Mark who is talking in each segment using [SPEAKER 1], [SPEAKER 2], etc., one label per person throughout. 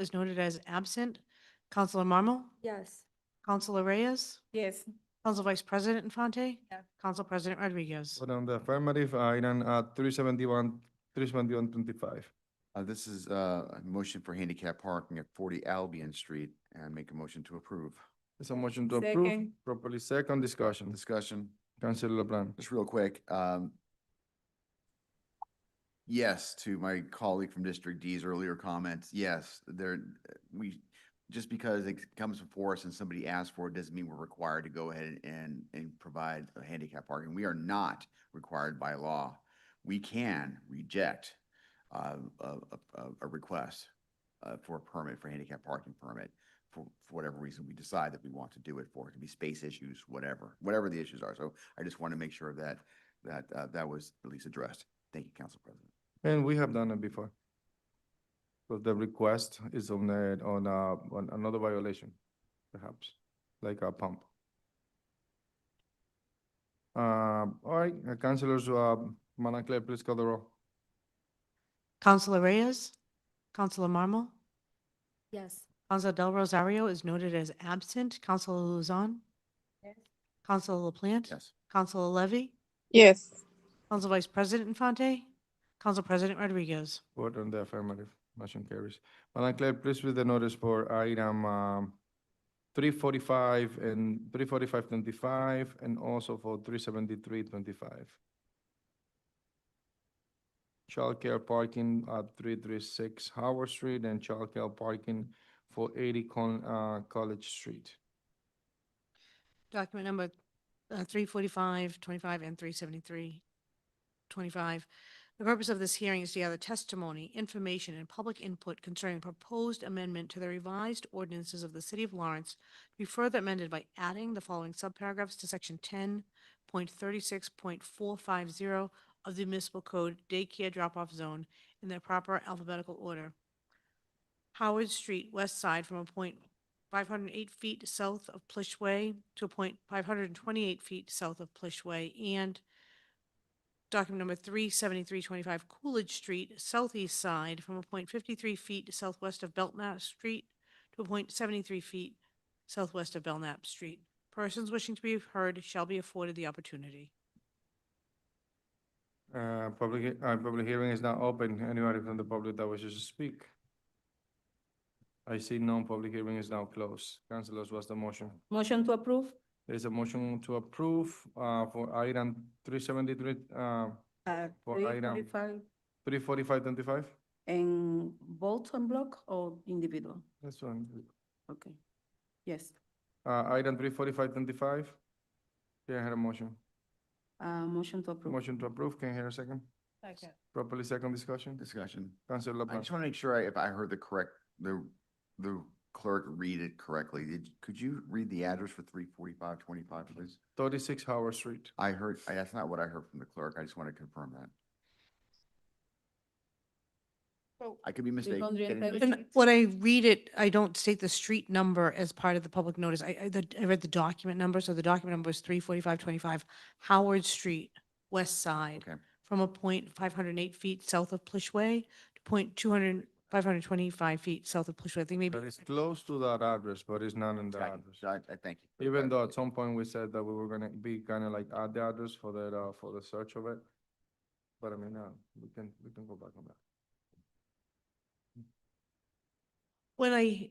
[SPEAKER 1] is noted as absent. Counselor Marmal,
[SPEAKER 2] Yes.
[SPEAKER 1] Counselor Reyes,
[SPEAKER 2] Yes.
[SPEAKER 1] Council Vice President Infante,
[SPEAKER 2] No.
[SPEAKER 1] Council President Rodriguez.
[SPEAKER 3] Vote on the affirmative, uh, item uh, 371, 37125.
[SPEAKER 4] Uh, This is uh, a motion for handicap parking at 40 Albion Street, and make a motion to approve.
[SPEAKER 3] There's a motion to approve.
[SPEAKER 2] Second.
[SPEAKER 3] Properly second discussion.
[SPEAKER 4] Discussion,
[SPEAKER 3] Councilor LeBlanc.
[SPEAKER 4] just real quick. um, Yes, to my colleague from District D's earlier comments, yes, there, we, just because it comes before us and somebody asks for it, doesn't mean we're required to go ahead and, and provide a handicap parking. We are not required by law. We can reject uh, a, a, a- a request uh, for a permit, for handicap parking permit, for, for whatever reason we decide that we want to do it for. It could be space issues, whatever, whatever the issues are. So I just want to make sure that, that, uh, that was at least addressed. Thank you, Council President.
[SPEAKER 3] And we have done it before. So the request is on, the- on, uh, on another violation, perhaps, like a pump. Uh, all right, uh, Councilors, uh, Madam Clerk, please call the roll.
[SPEAKER 1] Counselor Reyes, Counselor Marmal,
[SPEAKER 2] Yes.
[SPEAKER 1] Council Del Rosario is noted as absent. Counselor Luzon, Counselor LaPlante,
[SPEAKER 4] Yes.
[SPEAKER 1] Counselor Levy,
[SPEAKER 5] yes,
[SPEAKER 1] Council Vice President Infante, Council President Rodriguez.
[SPEAKER 3] Vote on the affirmative. Motion carries. Madam Clerk, please read the notice for item, um, three forty-five and three forty-five twenty-five and also for three seventy-three twenty-five. Childcare parking at three three six Howard Street and childcare parking for eighty Con, uh, College Street.
[SPEAKER 1] Document number uh, 345, 25, and 373, 25. The purpose of this hearing is to gather testimony, information, and public input concerning proposed amendment to the revised ordinances of the City of Lawrence to be further amended by adding the following subparagraphs to Section 10.36.450 of the Municipal Code Daycare Drop-Off Zone in their proper alphabetical order. Howard Street, west side from a point 508 feet south of Plish Way to a point 528 feet south of Plish Way, and document number 37325 Coolidge Street, southeast side, from a point 53 feet southwest of Belknap Street to a point 73 feet southwest of Belknap Street. Persons wishing to be heard shall be afforded the opportunity.
[SPEAKER 3] Uh, public, he- uh, public hearing is now open. Anybody from the public that wishes to speak? I see none. Public hearing is now closed. Councilors, what's the motion?
[SPEAKER 2] Motion to approve?
[SPEAKER 3] There's a motion to approve, uh, for item three seventy-three, uh,
[SPEAKER 6] at
[SPEAKER 3] For
[SPEAKER 6] three
[SPEAKER 3] item-
[SPEAKER 6] forty-five
[SPEAKER 3] three forty-five twenty-five?
[SPEAKER 6] and vote on block or individual?
[SPEAKER 3] That's one.
[SPEAKER 6] Okay. Yes,
[SPEAKER 3] Uh, item three forty-five twenty-five? Can I hear a motion?
[SPEAKER 6] uh, motion to approve.
[SPEAKER 3] Motion to approve. Can I hear a second?
[SPEAKER 2] Second.
[SPEAKER 3] Properly second discussion?
[SPEAKER 4] Discussion.
[SPEAKER 3] Councilor
[SPEAKER 4] I
[SPEAKER 3] LeBlanc.
[SPEAKER 4] just want to make sure I- if I heard the correct, the, the clerk read it correctly. Did, could you read the address for 34525, please?
[SPEAKER 3] Thirty-six Howard Street.
[SPEAKER 4] I heard, I- that's not what I heard from the clerk. I just want to confirm that. I could be mistaken.
[SPEAKER 6] 335.
[SPEAKER 4] Getting-
[SPEAKER 1] And when I read it, I don't state the street number as part of the public notice. I, I, the, I read the document number, so the document number is three forty-five twenty-five Howard Street, west side,
[SPEAKER 4] Okay,
[SPEAKER 1] from a point five hundred and eight feet south of Plishway to point two hundred, five hundred and twenty-five feet south of Plishway. I think maybe.
[SPEAKER 3] But it's close to that address, but it's not in the
[SPEAKER 4] got
[SPEAKER 3] address.
[SPEAKER 4] it. I, I thank you. for the
[SPEAKER 3] Even though at
[SPEAKER 4] clarification.
[SPEAKER 3] some point we said that we were gonna be kinda like add the address for that, uh, for the search of it. But I mean, uh, we can, we can go back on that.
[SPEAKER 1] When I,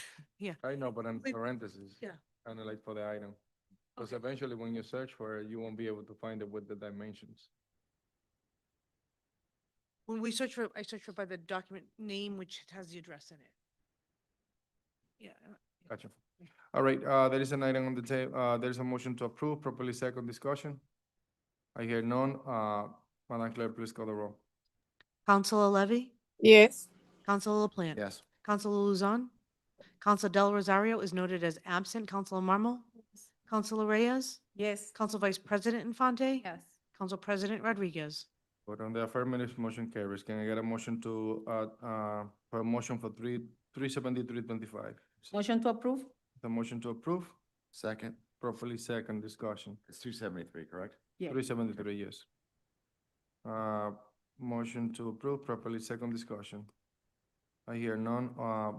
[SPEAKER 3] I know, but in
[SPEAKER 1] Wait,
[SPEAKER 3] parentheses.
[SPEAKER 1] yeah.
[SPEAKER 3] Kinda like for the item. Because eventually when you search for it, you won't be able to find it with the dimensions.
[SPEAKER 1] when we search for, I search for by the document name, which has the address in it. Yeah. I don't-
[SPEAKER 3] Gotcha. All right, uh, there is an item on the table. uh, there is a motion to approve, properly second discussion. I hear none, uh, Madam Clerk, please call the roll.
[SPEAKER 1] Counselor Levy,
[SPEAKER 5] yes,
[SPEAKER 1] Counselor LaPlante.
[SPEAKER 4] Yes,
[SPEAKER 1] Counselor Luzon. Counsel Del Rosario is noted as absent. Counselor Marmal. Counselor Reyes.
[SPEAKER 6] Yes.
[SPEAKER 1] Counsel Vice President Infante.
[SPEAKER 2] Yes.
[SPEAKER 1] Counsel President Rodriguez.
[SPEAKER 3] Vote on the affirmative, motion carries. Can I get a motion to, uh, uh, for a motion for three, three seventy-three twenty-five?
[SPEAKER 6] Motion to approve?
[SPEAKER 3] The motion to approve,
[SPEAKER 4] second.
[SPEAKER 3] properly second discussion.
[SPEAKER 4] It's 273, correct?
[SPEAKER 6] Yeah.
[SPEAKER 3] Three seventy-three, yes. Uh, motion to approve, properly second discussion. I hear none, uh,